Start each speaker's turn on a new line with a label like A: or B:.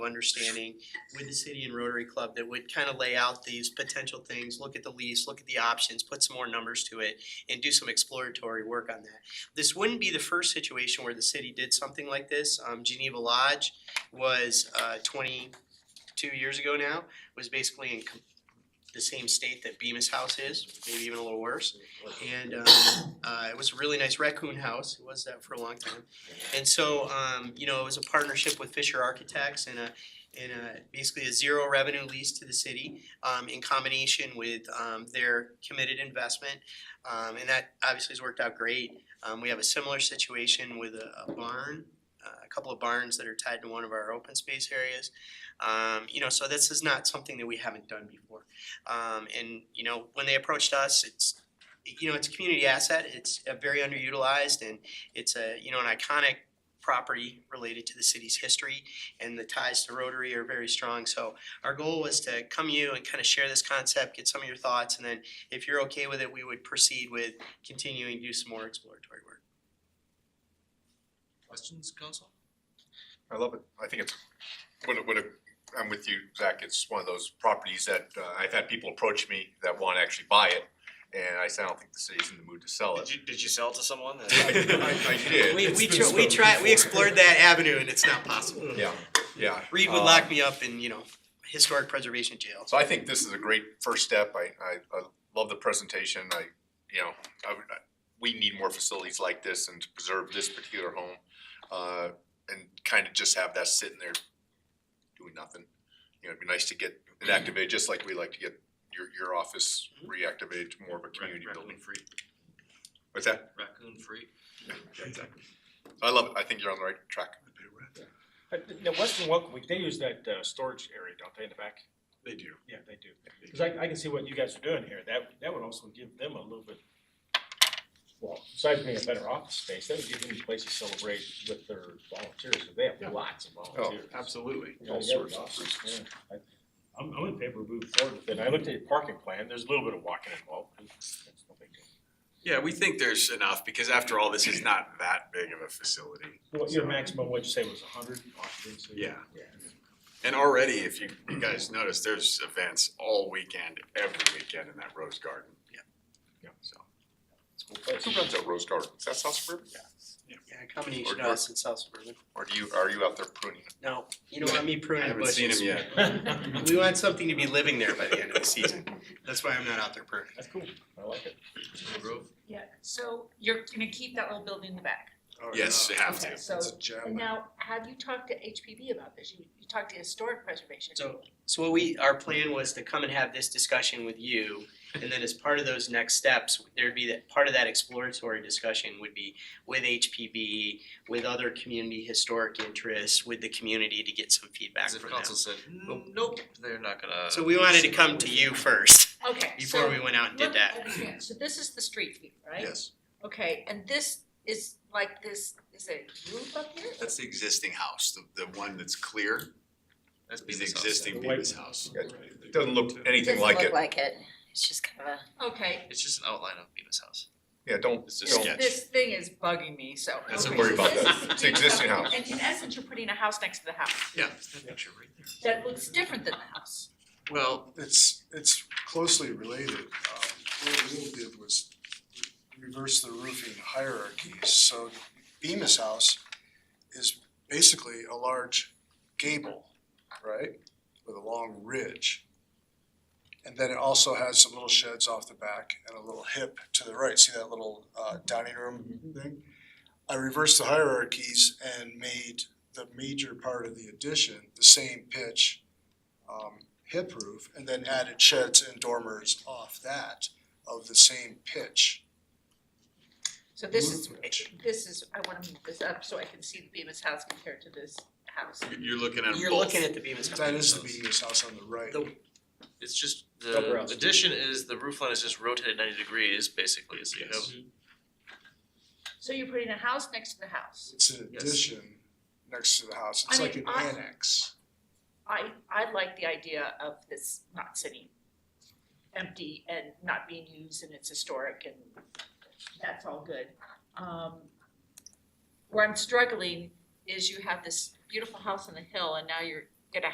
A: understanding with the city and Rotary Club that would kind of lay out these potential things, look at the lease, look at the options, put some more numbers to it, and do some exploratory work on that. This wouldn't be the first situation where the city did something like this. Um, Geneva Lodge was, uh, twenty-two years ago now, was basically in com- the same state that Bemis House is, maybe even a little worse. And, um, uh, it was a really nice raccoon house, it was that for a long time. And so, um, you know, it was a partnership with Fisher Architects and a, and a, basically a zero revenue lease to the city, um, in combination with, um, their committed investment. Um, and that obviously has worked out great. Um, we have a similar situation with a, a barn, uh, a couple of barns that are tied to one of our open space areas. Um, you know, so this is not something that we haven't done before. Um, and, you know, when they approached us, it's, you know, it's a community asset, it's uh, very underutilized and it's a, you know, an iconic property related to the city's history and the ties to Rotary are very strong. So our goal was to come to you and kind of share this concept, get some of your thoughts, and then if you're okay with it, we would proceed with continuing to do some more exploratory work.
B: Questions, council?
C: I love it. I think it's, what a, what a, I'm with you, Zach. It's one of those properties that, uh, I've had people approach me that want to actually buy it. And I said, I don't think the city's in the mood to sell
D: Did
C: it.
D: you, did you sell it to someone?
C: I, I did.
A: We, we
C: It's been
A: tr- we
C: spoken
A: tried, we
C: for.
A: explored that avenue and it's not possible.
C: Yeah, yeah.
A: Reed would
C: Um,
A: lock me up in, you know, historic preservation jail.
C: So I think this is a great first step. I, I, I love the presentation. I, you know, I, would- I, we need more facilities like this and to preserve this particular home. Uh, and kind of just have that sitting there doing nothing. You know, it'd be nice to get it activated, just like we like to get your, your office reactivated to more of a community building.
B: free.
C: What's that?
B: Raccoon free.
C: Yeah, exactly. I love it. I think you're on the right track.
E: Uh, Now, Western Welcome, Week, they use that uh, storage area, don't they, in the back?
B: They do.
E: Yeah, they do. Because I, I can see what you guys are doing here. That, that would also give them a little bit, well, besides being a better office space, that would give them a place to celebrate with their volunteers, because they
B: Yeah. Oh,
E: have lots of volunteers.
B: Absolutely.
E: Yeah, that'd be awesome, yeah. I- I'm, I'm in favor of moving forward with it. I looked at your parking plan, there's a little bit of walking involved. That's no big deal.
D: Yeah, we think there's enough because after all, this is not that big of a facility.
E: What, your maximum, what'd you say, was hundred occupancy?
D: Yeah.
E: Yeah.
D: And already, if you, you guys notice, there's events all weekend, every weekend in that Rose Garden.
A: Yeah.
D: Yeah, so.
E: It's a cool place.
C: Who runs that Rose Garden? Is that South Suburban?
A: Yeah, a combination of us and South Suburban.
C: Or do you, are you out there pruning?
A: No, you don't want me
D: I
A: pruning the
D: haven't
A: bushes.
D: seen him yet.
A: We want something to be living there by the end of the season. That's why I'm not out there pruning.
E: That's cool. I like it.
B: Grove?
F: Yeah, so you're gonna keep that little building in the back.
G: Oh,
D: Yes, you have
F: Okay,
D: to.
F: So, and
B: gem.
F: now, have you talked to HPB about this? You, you talked to historic preservation.
A: So, so what we, our plan was to come and have this discussion with you, and then as part of those next steps, there'd be that, part of that exploratory discussion would be with HPB, with other community historic interests, with the community to get some feedback
B: As if
A: from them.
B: council said, nope, they're not gonna.
A: So we wanted to come to you first,
F: Okay,
A: before
F: so,
A: we went out and did
F: let me
A: that.
F: understand. So this is the street view, right?
B: Yes,
F: Okay, and this is like this, is it a roof up here?
D: That's the existing house, the, the one that's clear
B: that's
D: is
B: Bemis
D: the
B: House.
D: existing
E: The white
D: Bemis
E: one.
D: house.
C: It Doesn't look anything
H: Doesn't
C: like
H: look
C: it.
H: like it. It's just kind of a.
F: Okay,
B: It's just an outline of Bemis House.
C: Yeah, don't,
D: It's a
C: don't.
D: sketch.
F: this thing is bugging me, so.
D: That's
F: okay,
D: a worry
F: so
D: about
F: this
C: that.
F: is
C: It's an existing
F: Bemis
C: house.
F: And in essence, you're putting a house next to the house
B: Yeah, it's that picture right there.
F: that looks different than the house.
B: Well,
G: It's, it's closely related. Um, What we did was reverse the roofing hierarchies. So Bemis House is basically a large gable, right? With a long ridge. And then it also has some little sheds off the back and a little hip to the right. See that little uh, dining room thing? I reversed the hierarchies and made the major part of the addition the same pitch um, hip roof and then added sheds and dormers off that of the same pitch.
F: So this is,
G: Movement.
F: this is, I wanna move this up so I can see the Bemis house compared to this house.
D: You're- You're looking at both.
A: You're looking at the Bemis House.
G: That is the Bemis house on the right.
A: The-
B: it's just,
A: Upper
B: the
A: house.
B: addition is, the roof line is just rotated ninety degrees, basically, so you have.
D: Yes.
F: So you're putting a house next to the house.
G: It's an
B: Yes.
G: addition next to the house. It's
F: I
G: like an
F: mean, I-
G: annex.
F: I, I like the idea of this not sitting empty and not being used and it's historic and that's all good. Um, where I'm struggling is you have this beautiful house on the hill and now you're